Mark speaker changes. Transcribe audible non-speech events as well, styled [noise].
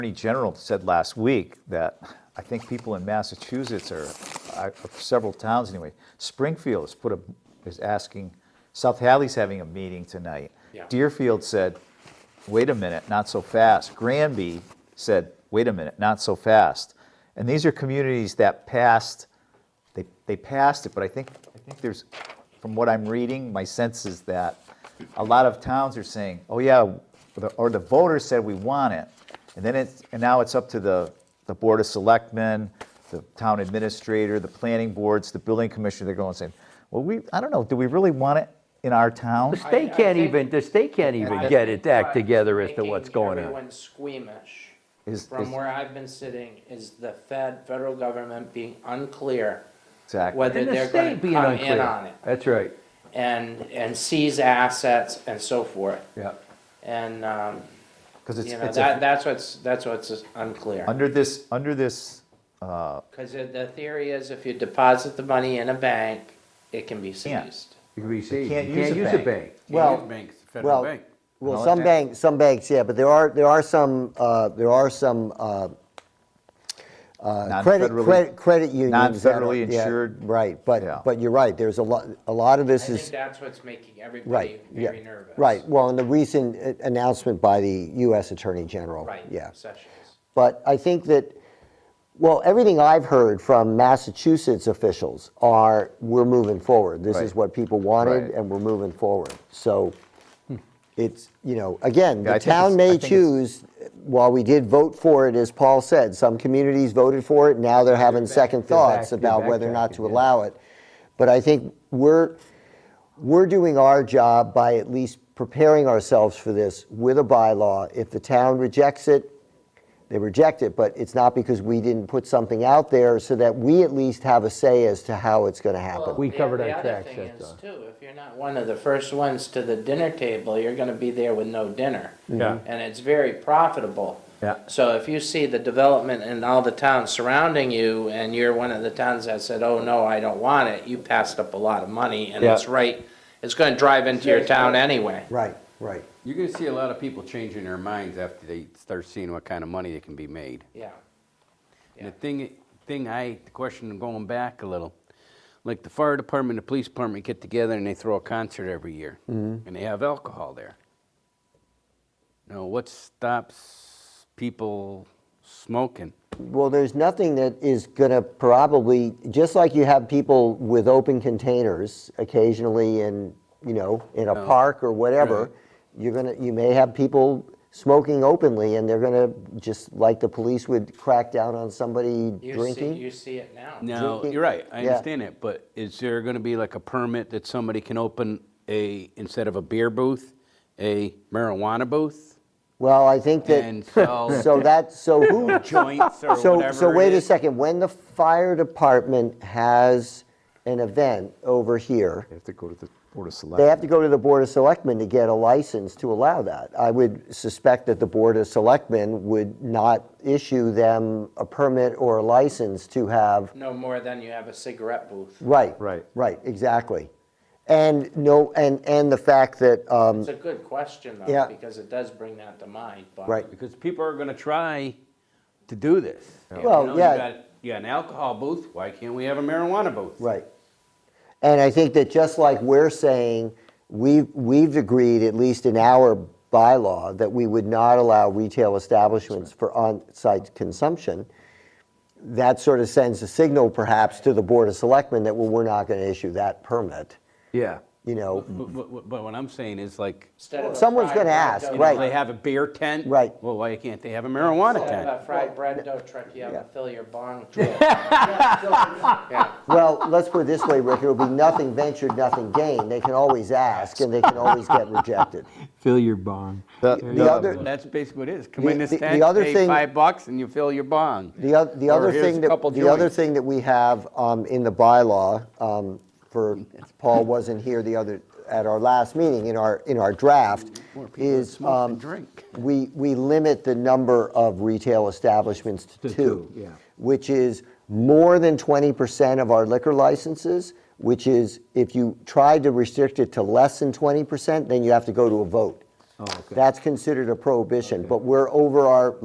Speaker 1: Attorney General said last week that I think people in Massachusetts are, I- several towns anyway, Springfield has put a, is asking, South Hadley's having a meeting tonight.
Speaker 2: Yeah.
Speaker 1: Deerfield said, wait a minute, not so fast. Granby said, wait a minute, not so fast. And these are communities that passed, they, they passed it, but I think, I think there's, from what I'm reading, my sense is that a lot of towns are saying, oh yeah, or the- or the voters said we want it. And then it's, and now it's up to the, the Board of Selectmen, the town administrator, the planning boards, the building commissioner, they're going saying, well, we, I don't know, do we really want it in our town?
Speaker 2: I-
Speaker 3: They
Speaker 2: I
Speaker 3: can't
Speaker 2: think-
Speaker 3: even, the state can't
Speaker 2: I
Speaker 3: even get
Speaker 2: think
Speaker 3: it act
Speaker 2: what's
Speaker 3: together as to
Speaker 2: making
Speaker 3: what's going on.
Speaker 2: Everyone squeamish,
Speaker 1: Is- is-
Speaker 2: from where I've been sitting, is the Fed, federal government being unclear
Speaker 1: Exactly.
Speaker 2: whether
Speaker 3: And the
Speaker 2: they're gonna
Speaker 3: state being
Speaker 2: come in on
Speaker 3: unclear.
Speaker 2: it,
Speaker 3: That's right,
Speaker 2: and, and seize assets and so forth.
Speaker 3: yeah.
Speaker 2: And, um,
Speaker 1: Because it's,
Speaker 2: you know,
Speaker 1: it's,
Speaker 2: that,
Speaker 1: a-
Speaker 2: that's what's, that's what's unclear.
Speaker 1: under this, under this,
Speaker 2: Because the theory is if you deposit the money in a bank, it can be
Speaker 1: Can't.
Speaker 2: seized.
Speaker 3: You can receive,
Speaker 1: can't
Speaker 3: you
Speaker 1: use
Speaker 3: can't
Speaker 1: a
Speaker 3: use a
Speaker 1: bank.
Speaker 3: bank.
Speaker 4: Well,
Speaker 5: Union Bank, the federal
Speaker 4: well,
Speaker 5: bank.
Speaker 1: No,
Speaker 4: well,
Speaker 1: it
Speaker 4: some
Speaker 1: can't.
Speaker 4: banks, some banks, yeah, but there are, there are some, uh, there are some uh, uh, credit,
Speaker 1: Non-federally-
Speaker 4: credit, credit unions. that are-
Speaker 1: non-federally
Speaker 4: yeah,
Speaker 1: insured.
Speaker 4: Right,
Speaker 1: Yeah.
Speaker 4: but, but you're right, there's a lot, a lot of
Speaker 2: I
Speaker 4: this
Speaker 2: think
Speaker 4: is,
Speaker 2: that's what's making everybody
Speaker 4: right, yeah.
Speaker 2: very nervous.
Speaker 4: Right, well, and the recent uh, announcement by the US Attorney General.
Speaker 2: Right,
Speaker 4: Yeah.
Speaker 2: Sessions.
Speaker 4: But I think that, well, everything I've heard from Massachusetts officials are, we're moving forward. This is
Speaker 1: Right.
Speaker 4: what people wanted,
Speaker 1: Right.
Speaker 4: and we're moving forward. So it's, you know, again,
Speaker 1: Yeah, I
Speaker 4: the
Speaker 1: think it's-
Speaker 4: town
Speaker 1: I
Speaker 4: may
Speaker 1: think it's-
Speaker 4: choose, while we did vote for it, as Paul said, some communities voted for it, now they're having second thoughts
Speaker 3: they're
Speaker 4: about whether or not
Speaker 3: backtracking,
Speaker 4: to
Speaker 3: yeah.
Speaker 4: allow it. But I think we're, we're doing our job by at least preparing ourselves for this with a bylaw. If the town rejects it, they reject it, but it's not because we didn't put something out there so that we at least have a say as to how it's gonna happen.
Speaker 3: We
Speaker 2: the-
Speaker 3: covered our tracks,
Speaker 2: The other
Speaker 3: that's
Speaker 2: thing
Speaker 3: all.
Speaker 2: is too, if you're not one of the first ones to the dinner table, you're gonna be there with no dinner.
Speaker 5: Yeah.
Speaker 2: And it's very profitable.
Speaker 3: Yeah.
Speaker 2: So if you see the development in all the towns surrounding you and you're one of the towns that said, oh, no, I don't want it, you passed up a lot of money and
Speaker 3: Yeah.
Speaker 2: it's right, it's gonna drive into your town anyway.
Speaker 4: Right, right.
Speaker 5: You're gonna see a lot of people changing their minds after they start seeing what kind of money that can be made.
Speaker 2: Yeah.
Speaker 5: And the thing, thing I, the question going back a little, like the fire department, the police department get together and they throw a concert every year.
Speaker 3: Mm-hmm.
Speaker 5: And they have alcohol there. Now, what stops people smoking?
Speaker 4: Well, there's nothing that is gonna probably, just like you have people with open containers occasionally in, you know, in a park or whatever,
Speaker 5: Oh. Right.
Speaker 4: you're gonna, you may have people smoking openly and they're gonna, just like the police would crack down on somebody
Speaker 2: You see,
Speaker 4: drinking.
Speaker 2: you see it now.
Speaker 5: Now,
Speaker 4: Drinking-
Speaker 5: you're right, I
Speaker 4: Yeah.
Speaker 5: understand that, but is there gonna be like a permit that somebody can open a, instead of a beer booth, a marijuana booth?
Speaker 4: Well, I think
Speaker 5: And
Speaker 4: that,
Speaker 5: sell-
Speaker 4: [laughs] so that, so
Speaker 5: [laughs]
Speaker 4: who,
Speaker 5: joints or
Speaker 4: So,
Speaker 5: whatever.
Speaker 4: so
Speaker 5: it
Speaker 4: wait a
Speaker 5: is.
Speaker 4: second, when the fire department has an event over here,
Speaker 1: they have to go to the Board of
Speaker 4: they
Speaker 1: Selectmen.
Speaker 4: have to go to the Board of Selectmen to get a license to allow that. I would suspect that the Board of Selectmen would not issue them a permit or a license to have,
Speaker 2: No more than you have a cigarette booth.
Speaker 4: right.
Speaker 1: Right.
Speaker 4: Right, exactly. And no, and, and the fact that, um,
Speaker 2: It's a good question though,
Speaker 4: Yeah.
Speaker 2: because it does bring that to mind, but.
Speaker 4: Right.
Speaker 5: Because people are gonna try to do this. You
Speaker 4: Well,
Speaker 5: know,
Speaker 4: yeah.
Speaker 5: You got, you got an alcohol booth, why can't we have a marijuana booth?
Speaker 4: Right. And I think that just like we're saying, we've, we've agreed, at least in our bylaw, that we would not allow retail establishments for on-site consumption, that sort of sends a signal perhaps to the Board of Selectmen that, well, we're not going to issue that permit,
Speaker 3: Yeah.
Speaker 4: you know?
Speaker 5: But, but- but what I'm saying is like,
Speaker 2: Instead of a
Speaker 4: Someone's
Speaker 2: fried
Speaker 4: gonna
Speaker 2: hot
Speaker 4: ask,
Speaker 2: dog,
Speaker 5: you
Speaker 2: you
Speaker 5: know,
Speaker 4: Right.
Speaker 5: they have a beer tent.
Speaker 4: Right.
Speaker 5: Well, why can't they have a marijuana
Speaker 2: Instead of
Speaker 5: tent?
Speaker 2: a fried bread dough truck, you have
Speaker 4: Yeah.
Speaker 2: a fill your bong truck.
Speaker 4: Well, let's put it this way, Rick, it'll be nothing ventured, nothing gained. They can always ask, and they can always get rejected.
Speaker 6: Fill your bond.
Speaker 1: The-
Speaker 4: The other,
Speaker 5: Well, That's basically what it is. Come in
Speaker 4: The-
Speaker 5: this
Speaker 4: the- the
Speaker 5: tent,
Speaker 4: other
Speaker 5: pay
Speaker 4: thing-
Speaker 5: five bucks and you fill your bong.
Speaker 4: The other, the
Speaker 5: Or
Speaker 4: other
Speaker 5: here's
Speaker 4: thing
Speaker 5: a
Speaker 4: that,
Speaker 5: couple
Speaker 4: the other
Speaker 5: joints.
Speaker 4: thing that we have um, in the bylaw, um,
Speaker 5: [laughs]
Speaker 4: for, Paul wasn't here the other, at our last meeting, in our, in our draft, is
Speaker 5: smoke than
Speaker 4: um,
Speaker 5: drink.
Speaker 4: we, we limit the number of retail establishments to two.
Speaker 6: two, yeah.
Speaker 4: Which is more than 20% of our liquor licenses, which is, if you tried to restrict it to less than 20%, then you have to go to a vote.
Speaker 6: Oh, okay.
Speaker 4: That's considered a prohibition, but we're over our